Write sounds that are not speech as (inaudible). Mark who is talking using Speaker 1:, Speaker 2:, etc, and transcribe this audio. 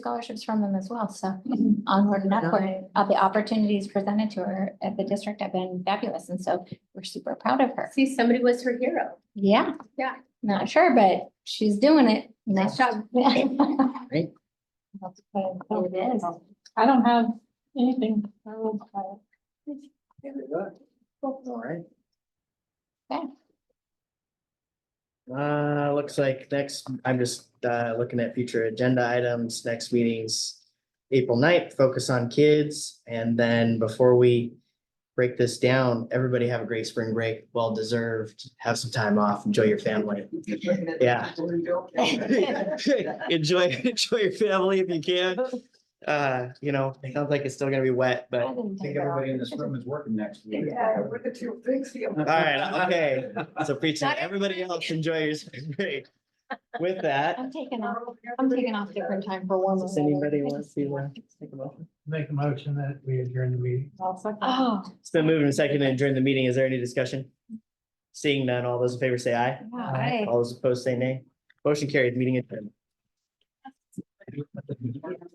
Speaker 1: scholarships from them as well, so onward and
Speaker 2: Yeah.
Speaker 1: upward. Uh, the opportunities presented to her at the district have been fabulous, and so we're super proud of her.
Speaker 3: See, somebody was her hero.
Speaker 1: Yeah.
Speaker 3: Yeah.
Speaker 1: Not sure, but she's doing it. Nice job.
Speaker 2: Great.
Speaker 1: That's what It is.
Speaker 4: I don't have anything. I will, uh,
Speaker 2: All right.
Speaker 1: Okay.
Speaker 2: Uh, looks like next, I'm just uh looking at future agenda items, next meetings. April 9th, focus on kids, and then before we break this down, everybody have a great spring break, well deserved, have some time off, enjoy your family. Yeah. (laughs) Enjoy, enjoy your family if you can, uh, you know, it sounds like it's still gonna be wet, but.
Speaker 1: I didn't
Speaker 5: I think
Speaker 1: take it off.
Speaker 5: everybody in this room is working next week.
Speaker 4: Yeah, we're the two things here.
Speaker 2: All right, okay. So preaching, everybody else enjoy your (laughs) spring break. With that,
Speaker 1: I'm taking off, I'm taking off different time for one.
Speaker 2: does anybody want to uh, take a moment?
Speaker 6: Make a motion that we adjourn the meeting.
Speaker 4: I'll second.
Speaker 1: Oh,
Speaker 2: It's been moved and seconded and during the meeting. Is there any discussion? Seeing none, all those in favor say aye.
Speaker 1: all
Speaker 5: (laughs)
Speaker 1: right.
Speaker 2: All those opposed say nay. Motion carried, meeting adjourned.